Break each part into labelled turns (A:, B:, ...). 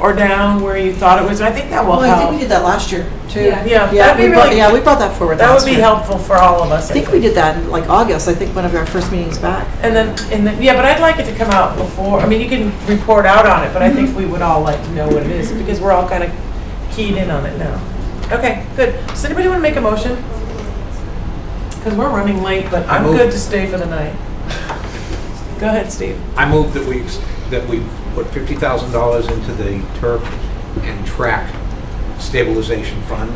A: or down where you thought it was. I think that will
B: Well, I think we
A: help.
B: did that last year, too.
C: Yeah.
A: Yeah,
B: Yeah,
A: that'd
B: we
A: be
B: brought,
A: really,
B: yeah, we brought that forward
A: that
B: last
A: would
B: year.
A: be helpful for all of us.
B: I think we did that in like August, I think one of our first meetings back.
A: And then, and then, yeah, but I'd like it to come out before, I mean, you can report out on it, but I
B: Mm-hmm.
A: think we would all like to know what it is, because we're all kind of keyed in on it now. Okay, good. Does anybody want to make a motion? Because we're running late, but I'm
D: move.
A: good to stay for the night. Go ahead, Steve.
D: I move that we, that we put fifty thousand dollars into the turf and track stabilization fund,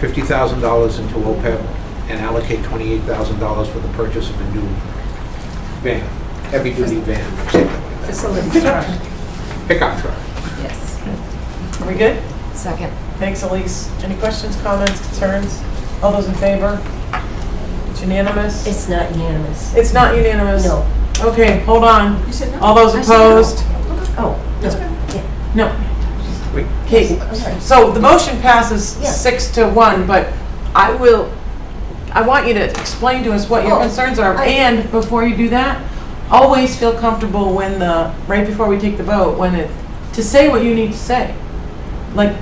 D: fifty thousand dollars into OPEB, and allocate twenty-eight thousand dollars for the purchase of a new van, heavy-duty van,
C: Facilities trust,
D: pickup truck.
C: yes.
A: Are we good?
C: Second.
A: Thanks, Elise. Any questions, comments, concerns? All those in favor? It's unanimous?
E: It's not unanimous.
A: It's not unanimous?
E: No.
A: Okay, hold on.
B: You said no?
A: All those
B: I said no.
A: opposed?
E: Oh,
A: That's
E: okay.
A: No.
D: Wait.
A: Okay, so the motion passes
E: Yeah.
A: six to one, but I will, I want you to explain to us what your
E: Oh,
A: concerns are.
E: I-
A: And before you do that, always feel comfortable when the, right before we take the vote, when it, to say what you need to say. Like,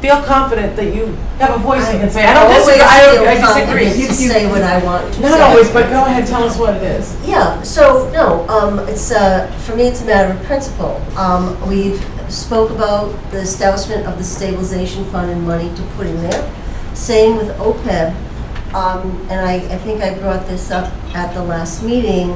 A: feel confident that you have a voice you can say, I don't
E: always
A: disagree,
E: feel
A: I don't- I
E: confident to
A: disagree.
E: say what I want to say.
A: Not always, but go ahead, tell us what it is.
E: Yeah, so, no, um, it's, uh, for me, it's a matter of principle. Um, we've spoke about the establishment of the stabilization fund and money to put in there. Same with OPEB, um, and I, I think I brought this up at the last meeting,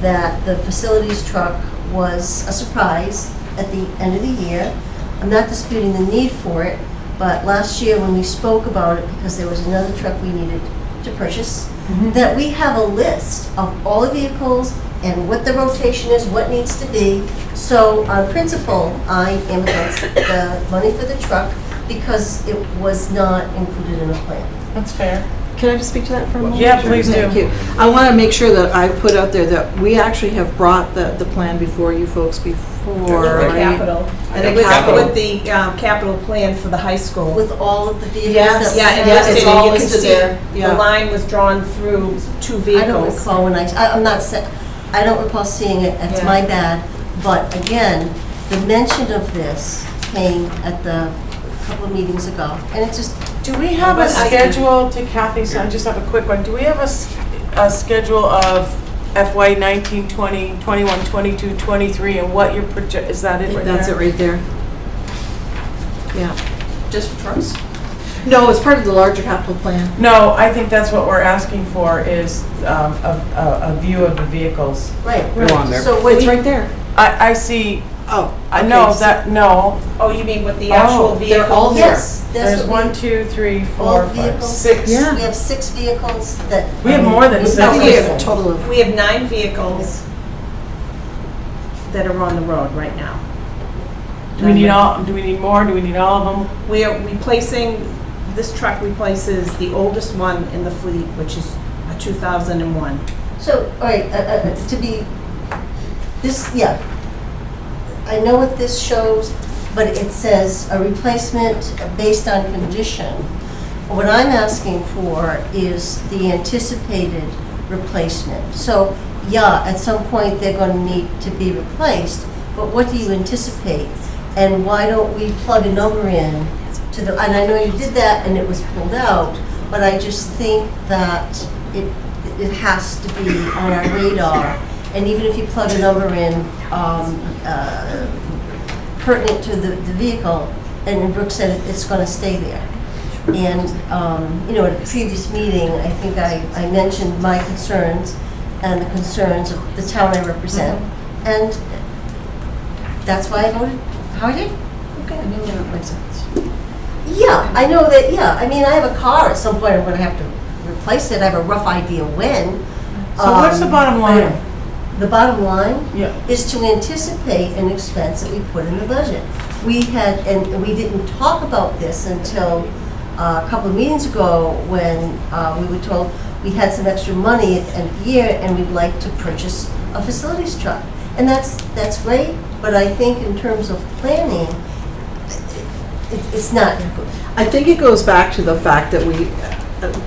E: that the facilities truck was a surprise at the end of the year. I'm not disputing the need for it, but last year when we spoke about it, because there was another truck we needed to purchase, that we have a list of all the vehicles and what the rotation is, what needs to be. So on principle, I am against the money for the truck because it was not included in the plan.
A: That's fair.
B: Can I just speak to that for a moment?
A: Yeah, please do.
B: Thank you. I want to make sure that I put out there that we actually have brought the, the plan before you folks before.
D: Or
F: The
B: right?
F: capital.
B: And
F: And
B: the
F: it was
B: capital.
F: with the um, capital plan for the high school.
E: With all of the vehicles
B: Yes,
E: that.
F: Yeah, and
B: Yeah,
F: listed,
B: it's
F: and
B: all
F: you can
B: listed
F: see
B: there. Yeah.
F: the line was drawn through two
E: I don't
F: vehicles.
E: recall when I, I- I'm not, se- I don't recall seeing it, that's
F: Yeah.
E: my bad. But again, the mention of this came at the couple of meetings ago, and it just,
A: Do we have a
F: Well, I-
A: schedule to Kathy, so I just have a quick one. Do we have a, s- a schedule of FY 19, 20, 21, 22, 23, and what your project, is that
B: I
A: it
B: think
A: right
B: that's it
A: there?
B: right there. Yeah.
F: Just for trucks?
B: No, it's part of the larger capital plan.
A: No, I think that's what we're asking for is um, a, a- a view of the vehicles.
E: right.
D: They're on there.
E: So what
B: It's
E: we-
B: right there.
A: I, I see,
B: Oh.
A: I
B: okay,
A: know
B: so-
A: that, no.
F: Oh, you mean with the
A: Oh,
F: actual
B: they're
F: vehicle?
B: all there.
E: Yes, that's
A: There's
E: what
A: one,
E: we,
A: two, three,
E: all
A: four, five,
E: vehicles.
A: six.
B: Yeah.
E: we have six vehicles that.
A: We have more than
E: We've
A: six.
B: I
E: got
B: think we have a total of,
F: We have nine vehicles that are on the road right now.
A: Do we need all, do we need more? Do we need all of them?
F: We are replacing, this truck replaces the oldest one in the fleet, which is a 2001.
E: So, all right, uh, uh, uh, to be, this, yeah. I know what this shows, but it says a replacement based on condition. What I'm asking for is the anticipated replacement. So, yeah, at some point, they're going to need to be replaced, but what do you anticipate? And why don't we plug a number in to the, and I know you did that and it was pulled out, but I just think that it, it has to be on our radar. And even if you plug a number in, um, uh, pertinent to the, the vehicle, and Brooke said it- it's gonna stay there. And, um, you know, at a previous meeting, I think I, I mentioned my concerns and the concerns of the town I represent,
A: Mm-hmm.
E: and that's why I voted how I did. Yeah, I know that, yeah, I mean, I have a car, at some point I'm gonna have to replace it, I have a rough idea when.
A: So what's the
E: Um,
A: bottom line?
E: The bottom line?
A: Yeah.
E: is to anticipate an expense that we put in the budget. We had, and we didn't talk about this until uh, a couple of meetings ago when uh, we were told we had some extra money at the end of the year and we'd like to purchase a facilities truck. And that's, that's great, but I think in terms of planning, it- it's not
B: I think it goes back to the fact that we,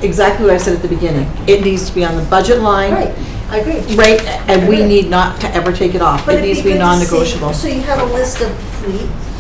B: exactly what I said at the beginning. It needs to be on the budget line.
E: Right, I agree.
B: Right, and we need not to ever take it off.
E: But
B: It
E: it'd
B: needs to
E: be
B: be
E: good to see-
B: non-negotiable.
E: So you have a list of fleet,